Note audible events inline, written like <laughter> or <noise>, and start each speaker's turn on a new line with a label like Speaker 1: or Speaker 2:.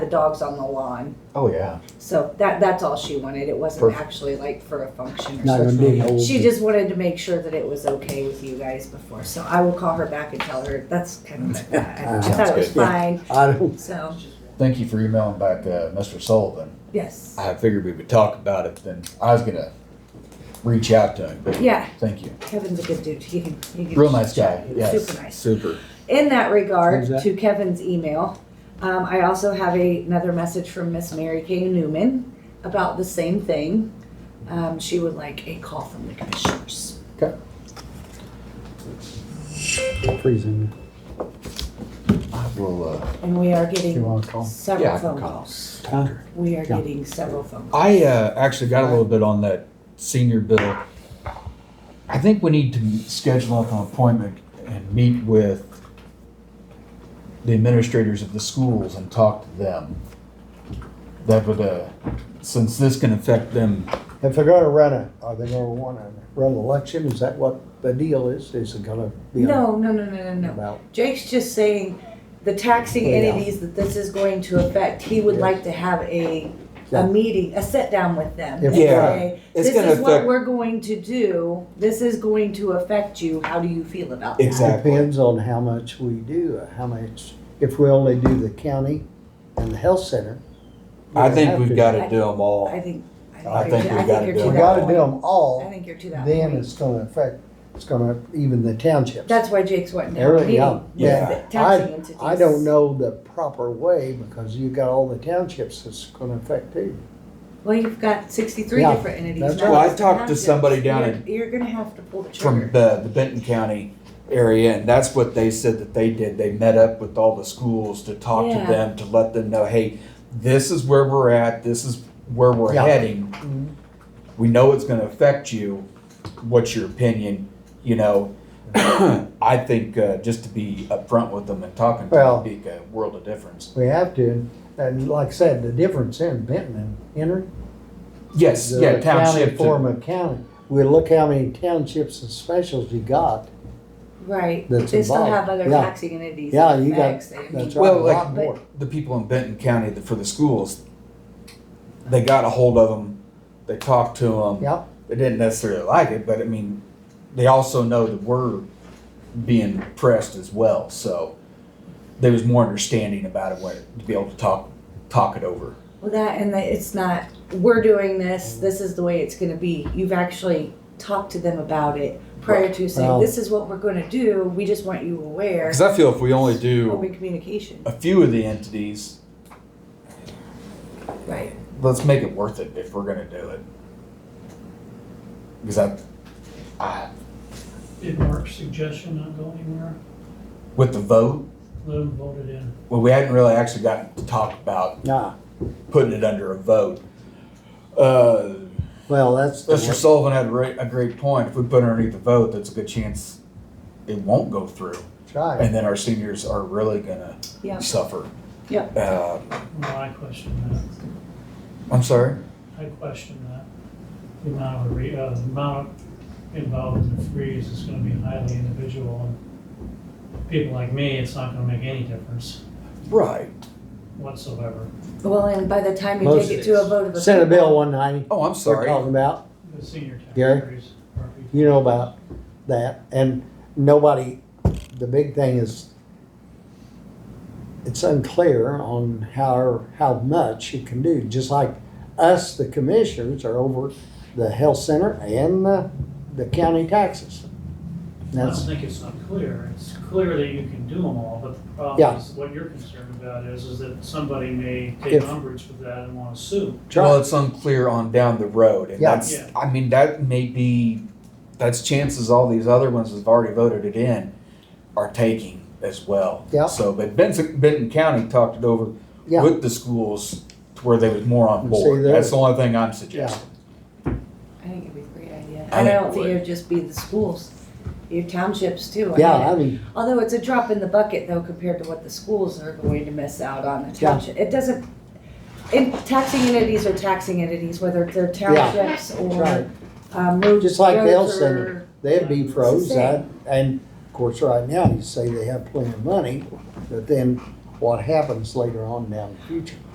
Speaker 1: dogs on the lawn.
Speaker 2: Oh, yeah.
Speaker 1: So that, that's all she wanted. It wasn't
Speaker 2: Perfect.
Speaker 1: actually like for a function or
Speaker 3: Not
Speaker 1: something.
Speaker 3: gonna be an old.
Speaker 1: She just wanted to make sure that it was okay with you guys before, so I will call her back and tell her that's kind of, I I thought it was
Speaker 2: Sounds
Speaker 3: good.
Speaker 1: fine,
Speaker 3: I don't,
Speaker 1: so,
Speaker 2: Thank you for emailing back, uh, Mr. Sullivan.
Speaker 1: yes.
Speaker 2: I figured we would talk about it then. I was gonna reach out to him, but
Speaker 1: Yeah,
Speaker 2: thank you.
Speaker 1: Kevin's a good dude. He can, he can.
Speaker 2: Real nice guy, yes.
Speaker 1: Super nice.
Speaker 2: Super.
Speaker 1: In that regard,
Speaker 3: Who's that?
Speaker 1: to Kevin's email, um, I also have a, another message from Miss Mary Kay Newman about the same thing. Um, she would like a call from the commissioners.
Speaker 3: freezing.
Speaker 2: I will, uh,
Speaker 1: And we are
Speaker 3: You
Speaker 1: getting
Speaker 3: wanna call?
Speaker 2: yeah,
Speaker 1: several
Speaker 2: I can
Speaker 1: phone
Speaker 2: call.
Speaker 1: calls.
Speaker 3: Huh?
Speaker 1: We are
Speaker 3: Yeah.
Speaker 1: getting several phone calls.
Speaker 2: I, uh, actually got a little bit on that senior bill. I think we need to schedule up an appointment and meet with the administrators of the schools and talk to them. That would, uh, since this can affect them
Speaker 3: If they're gonna run a, are they gonna wanna run an election? Is that what the deal is? Is it gonna be?
Speaker 1: No, no, no, no, no, no.
Speaker 3: About,
Speaker 1: Jake's just saying the taxing
Speaker 3: Yeah.
Speaker 1: entities that this is going to affect, he would like to have a,
Speaker 3: Yeah.
Speaker 1: a meeting, a sit down with them. and
Speaker 3: Yeah.
Speaker 1: say,
Speaker 2: It's
Speaker 1: This
Speaker 2: gonna
Speaker 1: is what
Speaker 2: affect-
Speaker 1: we're going to do. This is going to affect you. How do you feel about that?
Speaker 2: Exact- Exactly.
Speaker 3: depends on how much we do, uh, how much, if we only do the county and the health center.
Speaker 4: I
Speaker 3: we
Speaker 4: think
Speaker 3: have
Speaker 4: we've
Speaker 3: to-
Speaker 4: got to do them all.
Speaker 1: I think, I
Speaker 4: I
Speaker 1: think
Speaker 4: think
Speaker 1: you're,
Speaker 4: we
Speaker 1: I think
Speaker 4: gotta do
Speaker 1: you're
Speaker 3: We
Speaker 1: to
Speaker 4: it.
Speaker 1: that
Speaker 3: gotta do
Speaker 1: point.
Speaker 3: them all.
Speaker 1: I think you're to that
Speaker 3: Then
Speaker 1: point.
Speaker 3: it's gonna affect, it's gonna, even the townships.
Speaker 1: That's why Jake's wanting to have a
Speaker 3: Every- yeah,
Speaker 1: meeting.
Speaker 4: Yeah.
Speaker 3: yeah.
Speaker 1: with the taxing
Speaker 3: I,
Speaker 1: entities.
Speaker 3: I don't know the proper way because you've got all the townships that's gonna affect too.
Speaker 1: Well, you've got sixty-three
Speaker 3: Yeah,
Speaker 1: different entities.
Speaker 3: that's
Speaker 1: now.
Speaker 3: right.
Speaker 4: Well, I talked to somebody down
Speaker 1: You're-
Speaker 4: in-
Speaker 1: You're gonna have to pull the trigger.
Speaker 4: from the, the Benton County area, and that's what they said that they did. They met up with all the schools to talk
Speaker 1: Yeah.
Speaker 4: to them to let them know, hey, this is where we're at. This is where we're
Speaker 3: Yeah.
Speaker 4: heading. We know it's going to affect you. What's your opinion? You know, <clears throat> I think uh, just to be upfront with them and talking to
Speaker 3: Well-
Speaker 4: them would make a world of difference.
Speaker 3: We have to, and like I said, the difference in Benton and Henry.
Speaker 4: Yes,
Speaker 3: the
Speaker 4: yeah,
Speaker 3: County
Speaker 4: township. to-
Speaker 3: form of county. We look how many townships and specials you got.
Speaker 1: Right,
Speaker 3: that's
Speaker 1: they still
Speaker 3: involved.
Speaker 1: have other
Speaker 3: Yeah.
Speaker 1: taxing entities.
Speaker 3: Yeah,
Speaker 1: and
Speaker 3: you got-
Speaker 1: effects. They- I mean,
Speaker 3: That's right, a
Speaker 4: Well, like-
Speaker 3: lot more.
Speaker 4: the people in Benton County that- for the schools, they got a hold of them. They talked to them.
Speaker 3: Yeah.
Speaker 4: They didn't necessarily like it, but I mean, they also know that we're being pressed as well. So there was more understanding about it where, to be able to talk talk it over.
Speaker 1: Well, that, and that, it's not, we're doing this, this is the way it's gonna be. You've actually talked to them about it prior to
Speaker 3: Well-
Speaker 1: saying, this is what we're gonna do, we just want you aware.
Speaker 4: Because I feel if we only do
Speaker 1: Open communication,
Speaker 4: a few of the entities,
Speaker 1: right.
Speaker 4: let's make it worth it if we're going to do it. Because I, I,
Speaker 5: Did Mark's suggestion not go anywhere?
Speaker 4: with the vote,
Speaker 5: Lou voted in.
Speaker 4: well, we hadn't really actually gotten to talk about
Speaker 3: Nah,
Speaker 4: putting it under a vote. Uh,
Speaker 3: well, that's. the
Speaker 4: Mr.
Speaker 3: way-
Speaker 4: Sullivan had a great, a great point. If we put it underneath the vote, that's a good chance it won't go through.
Speaker 3: that's Right.
Speaker 4: And then our seniors are really gonna
Speaker 1: Yeah.
Speaker 4: suffer.
Speaker 1: Yeah.
Speaker 4: Um,
Speaker 5: Well, I question that.
Speaker 4: I'm sorry?
Speaker 5: I question that. The amount of, re- uh, the amount involved in the freeze is gonna be highly individual. and People like me, it's not gonna make any difference
Speaker 4: Right.
Speaker 5: whatsoever.
Speaker 1: Well, and by the time you take it to a vote of a.
Speaker 3: Senate
Speaker 1: people-
Speaker 3: Bill one ninety,
Speaker 4: Oh, I'm
Speaker 3: we're
Speaker 4: sorry.
Speaker 3: talking about,
Speaker 5: The senior
Speaker 3: Gary?
Speaker 5: taxpayers are people.
Speaker 3: you know about that, and nobody, the big thing is, it's unclear on how, how much you can do, just like us, the commissioners are over the health center and the, the county taxes.
Speaker 5: I don't
Speaker 3: That's,
Speaker 5: think it's unclear. It's clear that you can do them all, but the
Speaker 3: Yeah.
Speaker 5: problem is, what you're concerned about is, is that somebody may take
Speaker 3: If-
Speaker 5: umbrage with that and wanna sue.
Speaker 4: Well, it's unclear on down the road and
Speaker 3: Yeah.
Speaker 4: that's,
Speaker 5: Yeah.
Speaker 4: I mean, that may be, that's chances all these other ones that've already voted it in are taking as well.
Speaker 3: Yeah.
Speaker 4: So, but Benson, Benton County talked it over
Speaker 3: yeah.
Speaker 4: with the schools to where they was more on
Speaker 3: See,
Speaker 4: board.
Speaker 3: there-
Speaker 4: That's the only thing I'm suggesting.
Speaker 1: I think it'd be a great idea.
Speaker 4: I
Speaker 1: And I
Speaker 4: think
Speaker 1: don't
Speaker 4: it
Speaker 1: think
Speaker 4: would.
Speaker 1: it'd just be the schools, your townships too. I
Speaker 3: Yeah,
Speaker 1: mean,
Speaker 3: I mean,
Speaker 1: Although it's a drop in the bucket though compared to what the schools are going to miss out on the
Speaker 3: Yeah.
Speaker 1: township. It doesn't, and taxing entities are taxing entities, whether they're townships
Speaker 3: right.
Speaker 1: or, um, roads.
Speaker 3: Just like the health
Speaker 1: roads
Speaker 3: center.
Speaker 1: or-
Speaker 3: they'd be froze,
Speaker 1: It's the
Speaker 3: I'd- and of course, right now, you say they have plenty of money, but then what happens later on down the future?